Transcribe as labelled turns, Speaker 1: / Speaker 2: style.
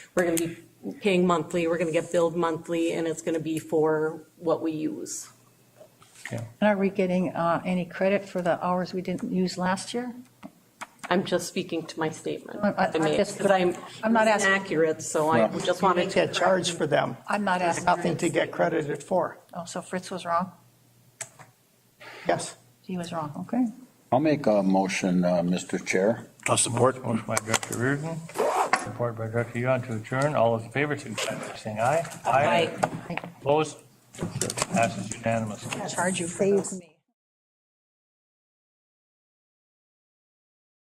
Speaker 1: we're going to be paying monthly, we're going to get billed monthly, and it's going to be for what we use.
Speaker 2: And are we getting uh, any credit for the hours we didn't use last year?
Speaker 1: I'm just speaking to my statement.
Speaker 2: I- I- I just-
Speaker 1: Because I'm,
Speaker 2: I'm not
Speaker 1: it's
Speaker 2: asking-
Speaker 1: inaccurate, so I
Speaker 3: Well,
Speaker 1: just
Speaker 4: You
Speaker 1: wanted
Speaker 4: didn't
Speaker 1: to.
Speaker 4: get charged for them.
Speaker 2: I'm not
Speaker 4: There's
Speaker 2: asking.
Speaker 4: nothing to get credited for.
Speaker 2: Oh, so Fritz was wrong?
Speaker 4: Yes.
Speaker 2: He was wrong, okay.
Speaker 3: I'll make a motion, uh, Mr. Chair.
Speaker 5: I'll support. Motion by Director Reardon, support by Director Yuan to adjourn. All those in favor, signify by saying aye.
Speaker 1: Aye.
Speaker 5: Opposed? Passes unanimously.
Speaker 2: Charge you for this.
Speaker 6: Save me.